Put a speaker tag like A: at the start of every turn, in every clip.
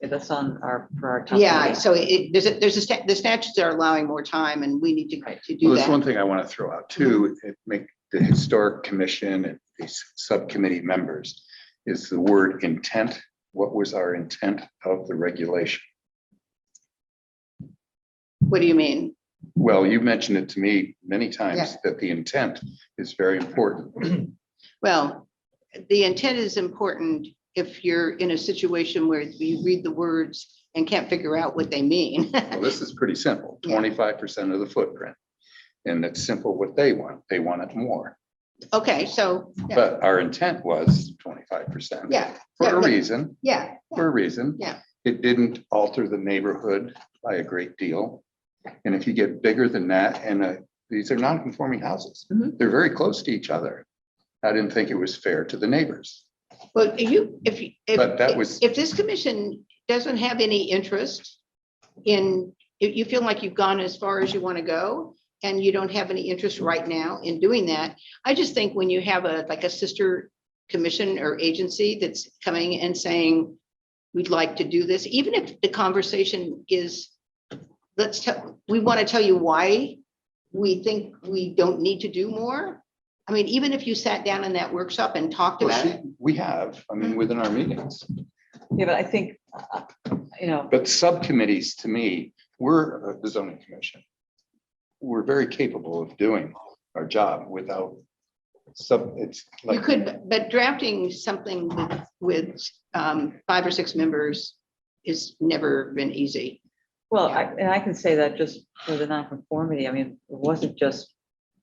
A: that's on our, for our. top
B: Yeah,
A: priority.
B: so it, there's, a- there's a, sta- the statutes are allowing more time and we need to,
A: Right.
B: to do
C: Well, that's
B: that.
C: one thing I want to throw out too,
B: Mm-hmm.
C: it make the historic commission and these subcommittee members is the word intent. What was our intent of the regulation?
B: What do you mean?
C: Well, you mentioned it to me many
B: Yeah.
C: times that the intent is very important.
B: Well, the intent is important if you're in a situation where you read the words and can't figure out what they mean.
C: Well, this is pretty simple,
B: Yeah.
C: twenty-five percent of the footprint. And it's simple what they want. They want it more.
B: Okay, so, yeah,
C: But our intent was twenty-five percent.
B: yeah,
C: For a
B: yeah.
C: reason,
B: yeah,
C: for a reason.
B: Yeah.
C: It didn't alter the neighborhood by a great deal. And if you get bigger than that, and uh, these are non-conforming houses,
A: Mhm.
C: they're very close to each other. I didn't think it was fair to the neighbors.
B: but you, if, you-
C: But that
B: if,
C: was-
B: if this commission doesn't have any interest in, if you feel like you've gone as far as you want to go and you don't have any interest right now in doing that, I just think when you have a, like a sister commission or agency that's coming and saying, we'd like to do this, even if the conversation is, let's tell, we want to tell you why we think we don't need to do more. I mean, even if you sat down in that workshop and talked
C: Well,
B: about
C: she-
B: it,
C: We have, I mean, within our meetings,
A: Yeah, but I think, uh, you know,
C: but subcommittees to me, we're uh, the zoning commission. We're very capable of doing our job without sub, it's
B: you
C: like,
B: could, but drafting something with, with um, five or six members is never been easy.
A: well, I, and I can say that just for the nonconformity, I mean, it wasn't just,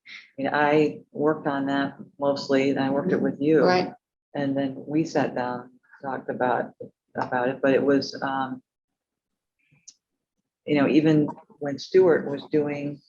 A: I mean, I worked on that mostly, and I worked it with you.
B: Right,
A: And then we sat down, talked about, about it, but it was, um, you know, even when Stewart was doing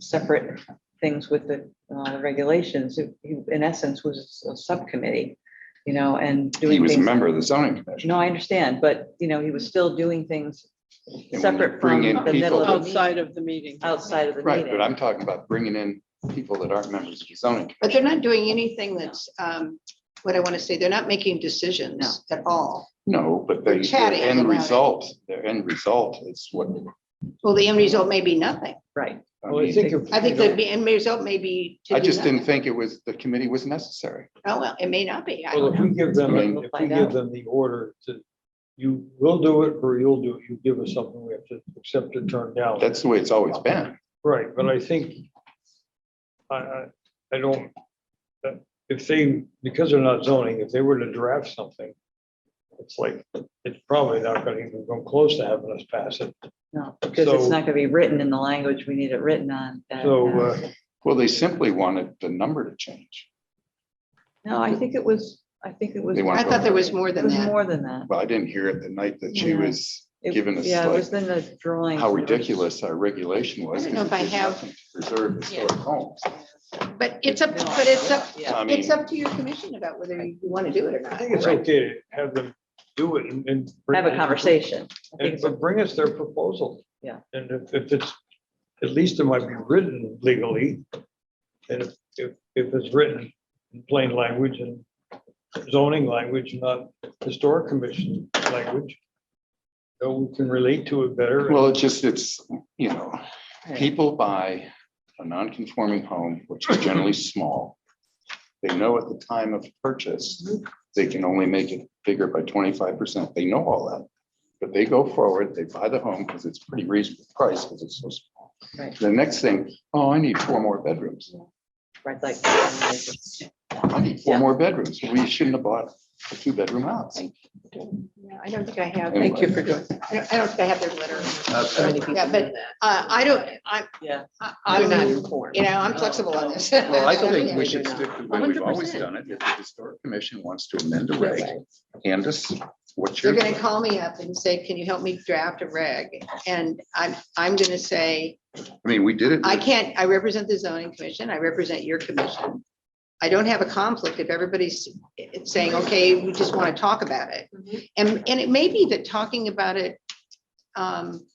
A: separate things with the, uh, the regulations, it- he, in essence, was a subcommittee, you know, and
C: he
A: doing
C: was a
A: things.
C: member of the zoning commission.
A: No, I understand, but, you know, he was still doing things
C: you
A: separate
C: bring
A: from
C: in
A: the
C: people
A: middle of the meeting,
D: Oh, Outside of the meeting.
A: outside of the
C: Right, but
A: meeting.
C: I'm talking about bringing in people that aren't members of the zoning.
B: but they're not doing anything that's, um, what I want to say, they're not making decisions at all.
C: No, but they, their
B: chatting
C: end
B: about it.
C: result, their end result is what.
B: Well, the end result may be nothing.
A: Right,
C: I
D: Well, I
C: mean,
D: think if-
B: I think the end result may be. to
C: I
B: do
C: just didn't
B: nothing.
C: think it was, the committee was necessary.
B: Oh, well, it may not be. I
D: Well,
B: don't
D: if
B: know.
D: we give them,
C: I mean-
D: if we
A: Find out.
D: give them the order to, you will do it or you'll do it, you give us something, we have to accept it, turn down.
C: That's the way it's always been.
D: Right, but I think, I, I, I don't, that- if they, because they're not zoning, if they were to draft something, it's like, it's probably not gonna even come close to having us pass it.
A: no, because it's
D: So-
A: not gonna be written in the language we need it written on. uh,
D: So,
A: uh,
D: uh,
C: Well, they simply wanted the number to change.
A: No, I think it was, I think it was.
C: They want-
B: I thought there was more
A: It
B: than
A: was
B: that.
A: more than that.
C: Well, I didn't hear it the night that she
A: Yeah.
C: was
A: It-
C: giving us
A: Yeah, it
C: like
A: was in the drawing.
C: how ridiculous our regulation was.
B: I don't know if I have-
C: Preserve historic homes.
B: But it's up, but it's up,
A: Yeah,
C: I mean,
B: it's up to your commission about whether you want to do it or
D: I
B: not.
D: think it's okay to have them do it and. and bring-
A: have a conversation. I think
D: And
A: it's a-
D: but bring us their proposal.
A: Yeah.
D: And if, if it's, at least it might be written legally. And if, if, if it's written in plain language and zoning language, not historic commission language. So we can relate to it better.
C: well, it's just, it's, you know,
A: yeah.
C: People buy a non-conforming home, which is generally small. They know at the time of purchase, they can only make it bigger by twenty-five percent. They know all that. But they go forward, they buy the home because it's pretty reasonable price because it's so small.
A: Right.
C: The next thing, oh, I need four more bedrooms.
A: Right, like, yeah,
C: I need four
A: Yeah.
C: more bedrooms. We shouldn't have bought a two-bedroom house.
B: Yeah, I don't think I have.
C: Thank you for
B: doing. I don't I don't think I have their letter.
C: Okay.
B: Yeah, but uh, I don't, I'm, I- I'm not, you know, I'm flexible on this.
C: Well, I think we should stick to the way we've always done it. If the historic commission wants to amend the reg, Candace, what's
B: They're
C: your?
B: gonna call me up and say, can you help me draft a reg? And I'm, I'm gonna say,
C: I mean, we did it.
B: I
C: with-
B: can't, I represent the zoning commission, I represent your commission. I don't have a conflict if everybody's it's saying, okay, we just want to talk about it. And, and it may be that talking about it um,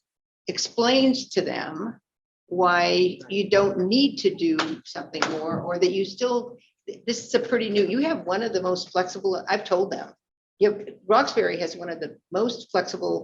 B: explains to them why you don't need to do something more, or that you still, this is a pretty new, you have one of the most flexible, I've told them. You, have- Roxbury has one of the most flexible